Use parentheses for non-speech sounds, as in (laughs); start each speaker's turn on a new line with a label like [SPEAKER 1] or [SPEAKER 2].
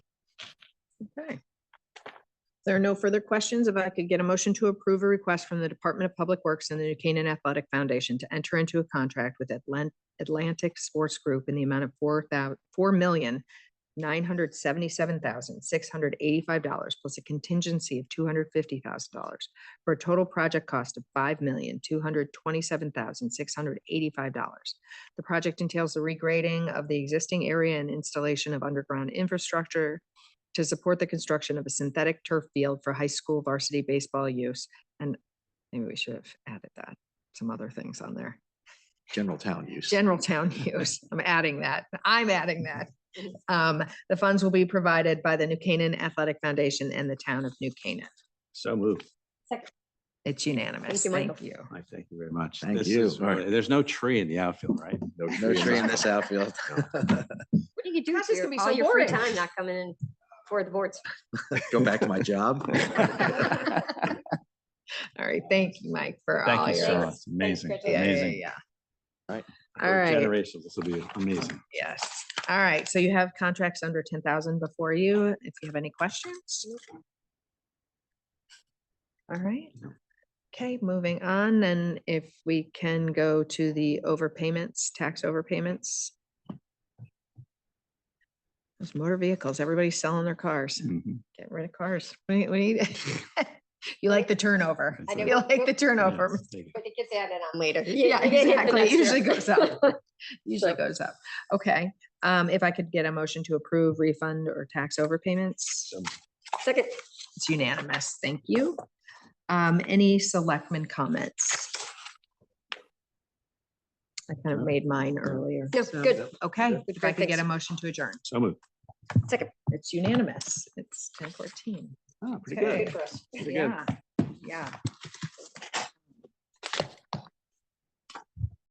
[SPEAKER 1] Okay. If There are no further questions. If I could get a motion to approve a request from the Department of Public Works and the New Canaan Athletic Foundation to enter into a contract with Atlan- Atlantic Sports Group in the amount of four thou- four million nine hundred seventy-seven thousand six hundred eighty-five dollars plus a contingency of two hundred fifty thousand dollars for a total project cost of five million two hundred twenty-seven thousand six hundred eighty-five dollars. The project entails the regrading of the existing area and installation of underground infrastructure to support the construction of a synthetic turf field for high school varsity baseball use. And maybe we should have added that, some other things on there.
[SPEAKER 2] General town use.
[SPEAKER 1] General town (laughs) use. I'm adding that. I'm adding that. Um, the funds will be provided by the New Canaan Athletic Foundation and the town of New Canaan.
[SPEAKER 3] So moved.
[SPEAKER 1] It's unanimous.
[SPEAKER 4] you, Michael.
[SPEAKER 1] Thank you.
[SPEAKER 3] I thank you very much.
[SPEAKER 2] Thank
[SPEAKER 3] This
[SPEAKER 2] you.
[SPEAKER 3] is really- There's no tree in the outfield, right?
[SPEAKER 2] No tree in this outfield.
[SPEAKER 4] What do you do
[SPEAKER 1] How's
[SPEAKER 4] for
[SPEAKER 1] this gonna
[SPEAKER 4] your,
[SPEAKER 1] be
[SPEAKER 4] all
[SPEAKER 1] so
[SPEAKER 4] your free
[SPEAKER 1] boring?
[SPEAKER 4] time not coming in for the (laughs) boards?
[SPEAKER 2] Go back to my job.
[SPEAKER 1] All right. Thank you, Mike, for all
[SPEAKER 3] Thank you so
[SPEAKER 1] your.
[SPEAKER 3] much. Amazing,
[SPEAKER 4] Gretchen.
[SPEAKER 1] Yeah, yeah,
[SPEAKER 3] amazing.
[SPEAKER 1] yeah.
[SPEAKER 2] Right.
[SPEAKER 1] All
[SPEAKER 3] For
[SPEAKER 1] right.
[SPEAKER 3] Generations, this will be amazing.
[SPEAKER 1] Yes. All right. So you have contracts under ten thousand before you. If you have any questions? All right. Okay, moving on. And if we can go to the overpayments, tax overpayments. Those motor vehicles, everybody's selling their cars,
[SPEAKER 3] Mhm.
[SPEAKER 1] getting rid of cars. We, we need. (laughs) You like the turnover.
[SPEAKER 3] (laughs) I
[SPEAKER 4] know.
[SPEAKER 1] You like the turnover.
[SPEAKER 3] Yes, thank you.
[SPEAKER 4] But it gets added on later.
[SPEAKER 1] (laughs) Yeah,
[SPEAKER 4] (laughs) They get hit the
[SPEAKER 1] exactly. It
[SPEAKER 4] next
[SPEAKER 1] usually
[SPEAKER 4] year.
[SPEAKER 1] goes up. Usually goes up. Okay, um, if I could get a motion to approve refund or tax overpayments,
[SPEAKER 4] (laughs) Second,
[SPEAKER 1] it's unanimous. Thank you. Um, any selectmen comments? I kind of made mine earlier.
[SPEAKER 4] No,
[SPEAKER 1] so-
[SPEAKER 4] good.
[SPEAKER 1] Okay, if I
[SPEAKER 4] Great,
[SPEAKER 1] could get
[SPEAKER 4] thanks.
[SPEAKER 1] a motion to adjourn,
[SPEAKER 3] So moved.
[SPEAKER 4] second.
[SPEAKER 1] it's unanimous. It's ten fourteen.
[SPEAKER 3] Oh, pretty
[SPEAKER 1] Okay.
[SPEAKER 3] good.
[SPEAKER 4] Good for us.
[SPEAKER 3] Pretty good.
[SPEAKER 1] Yeah, yeah.